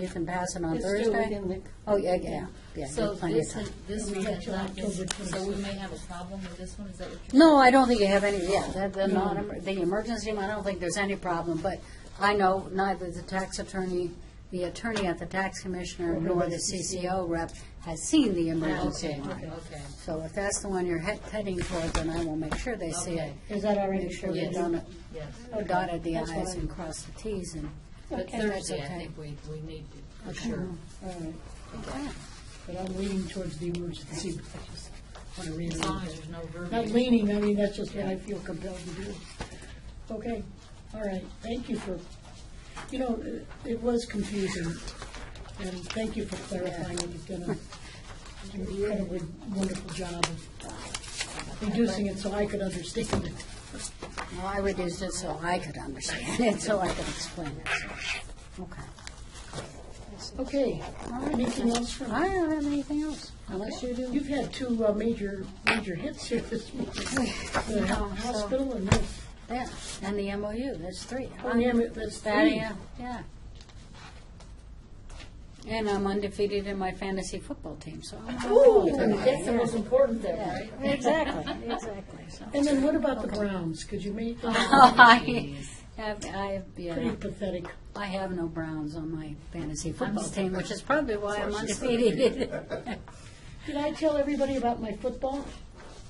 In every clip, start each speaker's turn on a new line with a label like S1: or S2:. S1: You can pass it on
S2: It's still
S1: Thursday?
S2: within the-
S1: Oh, yeah, yeah, yeah.
S3: So
S1: there's plenty of
S3: this,
S1: time.
S3: this
S2: We
S3: one
S2: have
S3: Mm-hmm. is
S2: till
S3: not,
S2: October
S3: so we may have a problem with this one, is that what you're?
S1: No, I don't think you have any, yeah, that- the non, the emergency, room, I don't think there's any problem, but I know neither the tax attorney, the attorney at the tax commissioner, nor the CCO rep has seen the emergency
S3: Okay,
S1: line.
S3: okay.
S1: So if that's the one you're he- heading toward, then I will make sure they see it.
S3: Okay.
S2: Is that already
S1: Make sure we
S3: Yes.
S1: don't
S3: Yes,
S1: uh, dotted the
S2: That's
S1: i's
S2: fine.
S1: and cross the t's and,
S3: but
S2: Okay, that's
S3: Thursday, I
S1: okay.
S3: think we, we need to, for sure.
S1: Mm-hmm.
S2: All right,
S1: okay.
S2: but I'm leaning towards the emergency. I just want to
S3: As long as
S2: reiterate.
S3: there's no
S2: Not
S3: verbiage.
S2: leaning, I mean, that's just what I feel compelled to do. Okay, all right, thank you for, you know, it- it was confusing, and thank you for clarifying it. You've done an incredibly wonderful job of reducing it so I could understand it.
S1: Well, I would use it so I could understand it, so I could explain it, so, okay.
S2: Okay, anything else from?
S1: I don't have anything else, unless you do.
S2: You've had two uh, major, major hits here this week, the
S1: Yeah, so-
S2: hou- hospital and this.
S1: Yeah, and the MOU, that's three.
S2: Oh, yeah, but that's
S1: That,
S2: three.
S1: yeah, yeah. And I'm undefeated in my fantasy football team, so. I'm-
S2: Ooh,
S3: That's the most important thing, right?
S1: Exactly, exactly, so.
S2: And then what about the Browns? Could you make that
S1: Oh, I have, I have,
S2: pretty
S1: yeah,
S2: pathetic?
S1: I have no Browns on my fantasy football team, which is probably why I'm undefeated.
S2: Did I tell everybody about my football?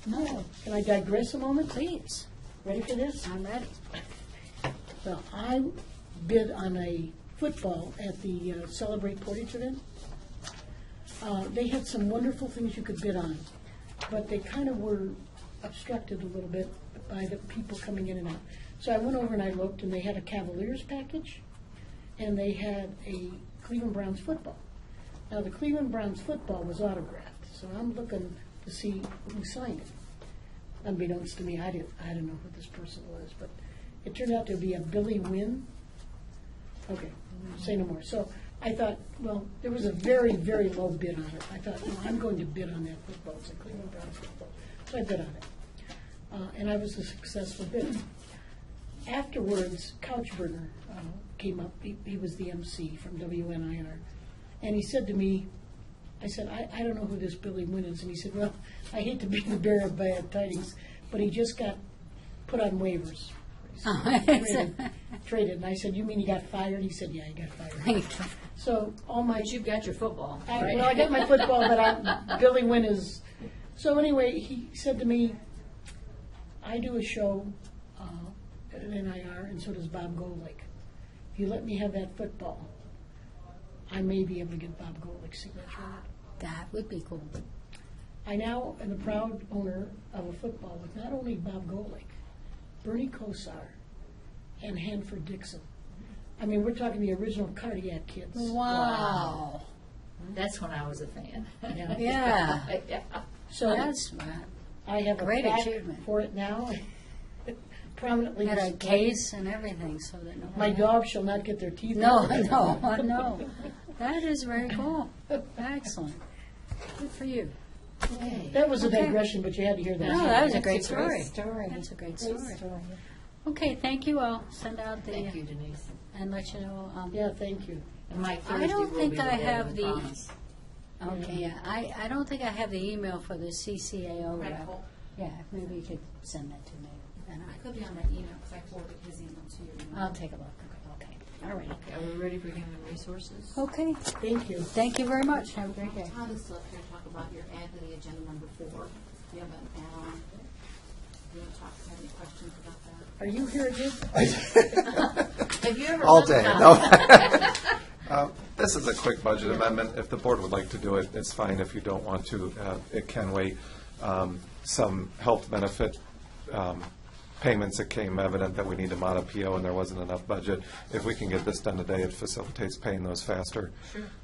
S1: No,
S2: Can I digress a moment?
S1: please,
S2: Ready for this?
S1: I'm ready.
S2: Well, I bid on a football at the uh, Celebrate Portage event. Uh, They had some wonderful things you could bid on, but they kind of were obstructed a little bit by the people coming in and out. So I went over and I looked, and they had a Cavaliers package, and they had a Cleveland Browns football. Now, the Cleveland Browns football was autographed, so I'm looking to see who signed it unbeknownst to me, I didn't, I don't know who this person was, but it turned out to be a Billy Wynn. Okay, say no more. So I thought, well, there was a very, very low bid on it. I thought, no, I'm going to bid on that football, it's a Cleveland Browns football. So I bid on it. Uh, and I was a successful bidder. Afterwards, Couchburner uh, came up, he, he was the MC from WNIR, and he said to me, I said, I, I don't know who this Billy Wynn is. And he said, Well, I hate to be the bearer of bad tidings, but he just got put on waivers. Traded, traded. And I said, You mean he got fired? He said, Yeah, he got fired. So all my.
S3: But you've got your football,
S2: I,
S3: right?
S2: well, I got my football, but I, Billy Wynn is. So anyway, he said to me, "I do a show uh, at an NIR, and so does Bob Golick. If you let me have that football, I may be able to get Bob Golick's signature." on it."
S1: That would be cool.
S2: I now am the proud owner of a football with not only Bob Golick, Bernie Kosar, and Hanford Dixon. I mean, we're talking the original cardiac kids.
S1: Wow.
S3: That's when I was a fan.
S2: Yeah.
S1: Yeah,
S3: Yeah.
S2: So
S1: that's smart.
S2: I have a
S1: Great
S2: plaque
S1: achievement.
S2: for it now, prominently
S1: Had a
S2: displayed.
S1: case and everything, so that no.
S2: My dog shall not get their teeth.
S1: No,
S2: out.
S1: no, no. That is very cool. Excellent. Good for you.
S2: That was a digression, but you had to hear that.
S1: No, that was a great story.
S4: story.
S1: That's a great story. Okay, thank you. I'll send out
S3: Thank you,
S1: the,
S3: Denise.
S1: and let you know. um,
S2: Yeah, thank you.
S3: And my
S1: I
S3: Thursday
S1: don't
S3: will
S1: think
S3: be the
S1: I
S3: day
S1: have
S3: of
S1: the-
S3: promise.
S1: Okay, yeah. I, I don't think I have the email for the CCAO rep. Yeah, maybe you could send that to me. and
S5: It could be on my email, because I forwarded his email to you.
S1: I- I'll take a look. Okay, all right.
S3: Are we ready for human resources?
S1: Okay,
S2: Thank you.
S1: thank you very much. Have a great day.
S5: Todd is still up here to talk about your add to the agenda number four. You have an add on. You want to talk, have any questions about that?
S2: Are you here again?
S3: Have you ever?
S6: All
S3: left
S6: day.
S3: out-
S6: No. Uh, This is a quick budget amendment. If the board would like to do it, it's fine. If you don't want to, uh, it can wait. Um, Some health benefit um, payments, it came evident that we need to mod a PO and there wasn't enough budget. If we can get this done today, it facilitates paying those faster.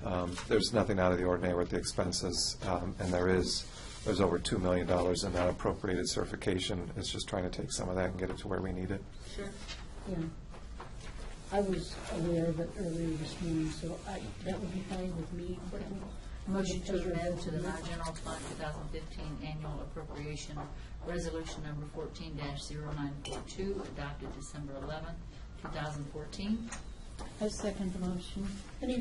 S6: Um, There's nothing out of the ordinary with the expenses, um, and there is, there's over $2 million in that appropriated certification. It's just trying to take some of that and get it to where we need it.
S2: Yeah. I was aware of it earlier this morning, so I, that would be fine with me.
S3: Motion to amend to the non-general fund 2015 annual appropriation, resolution number 14-0942, adopted December 11, 2014.
S4: I second the motion.
S2: Any